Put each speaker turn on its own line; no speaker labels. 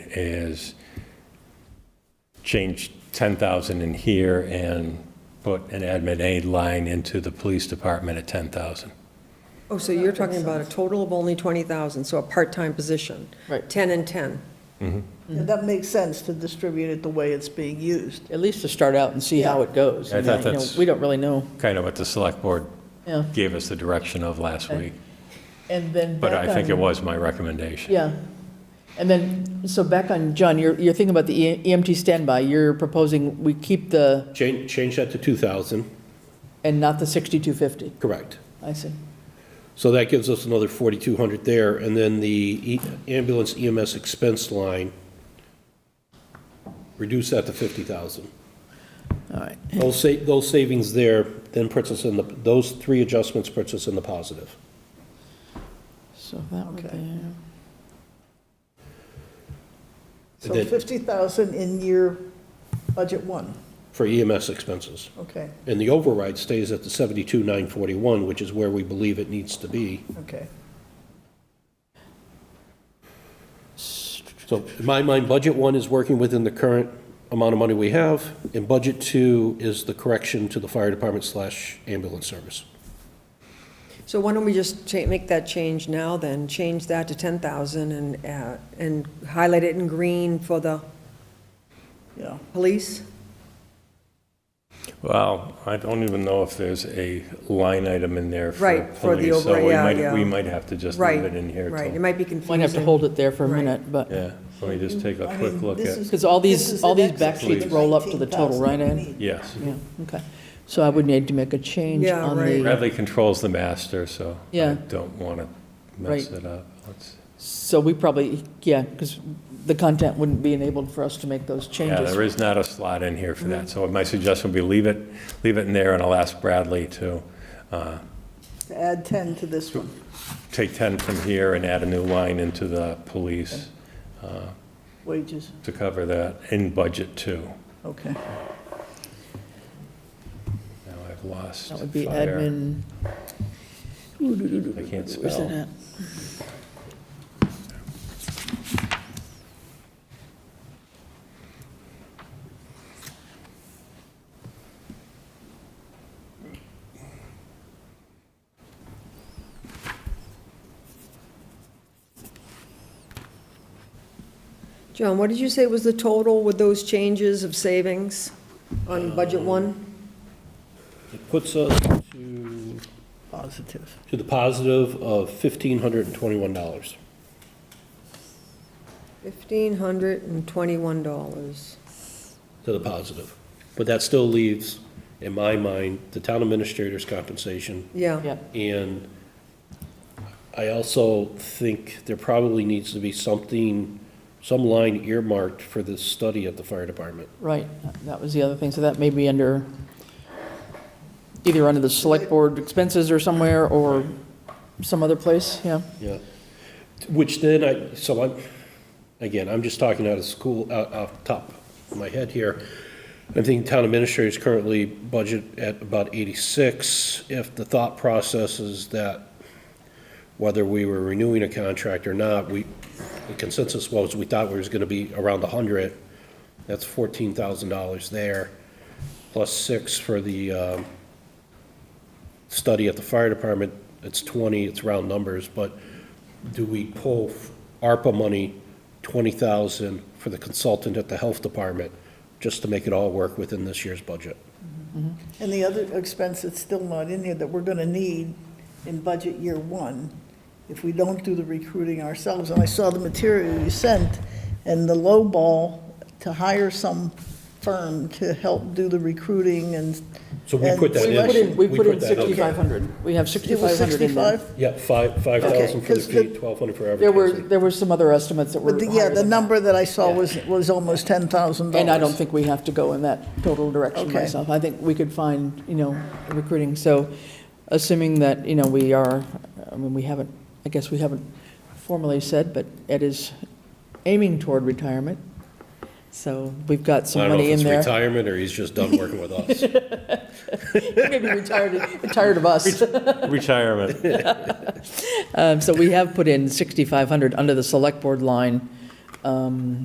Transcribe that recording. is change 10,000 in here and put an admin aid line into the police department at 10,000.
Oh, so you're talking about a total of only 20,000, so a part-time position?
Right.
10 and 10.
Mm-hmm.
And that makes sense to distribute it the way it's being used.
At least to start out and see how it goes.
I
mean,
thought
you know,
that's-
We don't really know,
Kind of what the select board
yeah.
gave us the direction of last week.
And then
But
back
I think it
on-
was my recommendation.
Yeah. And then, so back on, John, you're, you're thinking about the E- EMT standby. You're proposing we keep the,
Change, change that to 2,000,
and not the 6250.
correct.
I see.
So that gives us another 4,200 there, and then the E- ambulance EMS expense line, reduce that to 50,000.
All right.
Those sa, those savings there then puts us in the, those three adjustments puts us in the positive.
So that would be,
So
That-
50,000 in year budget one,
for EMS expenses.
okay,
And the override stays at the 72,941, which is where we believe it needs to be.
okay.
So in my mind, budget one is working within the current amount of money we have, and budget two is the correction to the fire department slash ambulance service.
So why don't we just cha, make that change now then? Change that to 10,000 and, uh, and highlight it in green for the
Yeah,
police?
Well, I don't even know if there's a line item in there for
Right, for the
police, so
over-
we
yeah,
might,
yeah.
we might have to just
Right.
leave it in here.
Right,
till-
it might be confusing.
might have to hold it there for a
Right.
minute, but,
Yeah, let me just take a
I
quick
mean,
look
this
at,
is-
because all
This
these,
is
all
the
these back
next-
sheets roll up to the total,
19,000
right,
we
Ed?
need.
yes.
Yeah, okay. So I would need to make a change
Yeah,
on
right.
the,
Bradley controls the master, so I
Yeah.
don't want to mess
Right.
it up. Let's-
so we probably, yeah, because the content wouldn't be enabled for us to make those
Yeah, there
changes. Mm.
is not a slot in here for that, so my suggestion would be leave it, leave it in there, and I'll ask Bradley to uh,
To add 10 to this one.
take 10 from here and add a new line into the police
Wages,
to cover that in budget two.
okay.
Now I've lost
That would be
fire.
admin.
I can't
Where's that
spell.
at?
John, what did you say was the total with those changes of savings on
Um,
budget one?
It puts us to,
Positive.
to the positive of $1,521.
$1,521.
to the positive. But that still leaves, in my mind, the town administrator's compensation,
Yeah,
Yeah,
and I also think there probably needs to be something, some line earmarked for this study at the fire department.
right, that was the other thing, so that may be under, either under the select board expenses or somewhere, or some other place, yeah.
Yeah. Which then I, so I'm, again, I'm just talking out of school, out, off the top of my head here. I'm thinking town administrators currently budget at about eighty-six. If the thought process is that whether we were renewing a contract or not, we, the consensus was we thought we was gonna be around hundred. That's fourteen thousand dollars there, plus six for the, um, study at the fire department, it's 20, it's round numbers, but do we pull ARPA money, 20,000 for the consultant at the health department, just to make it all work within this year's budget?
And the other expense that's still not in here that we're going to need in budget year one, if we don't do the recruiting ourselves, and I saw the material you sent, and the low ball to hire some firm to help do the recruiting and.
So we put that
and-
We
in.
put in, we put in
that in.
6,500, we have
It was
6,500 in there.
65?
Yeah, five 5,000 for the
Okay, 'cause the-
P, 1,200 for
There were,
advertising.
there were some other estimates that were
But the, yeah,
higher
the
than that.
number that I saw
Yeah.
was, was almost $10,000.
And I don't think we have to go in that total direction
Okay.
myself. I think we could find, you know, recruiting. So assuming that, you know, we are, I mean, we haven't, I guess we haven't formally said, but Ed is aiming toward retirement. So we've got
I
some
don't know
money
if
in
it's
there.
retirement or he's just done working with us.
Maybe retired, tired of us.
Retirement,
Um, So we have put in 6,500 under the select board line. um,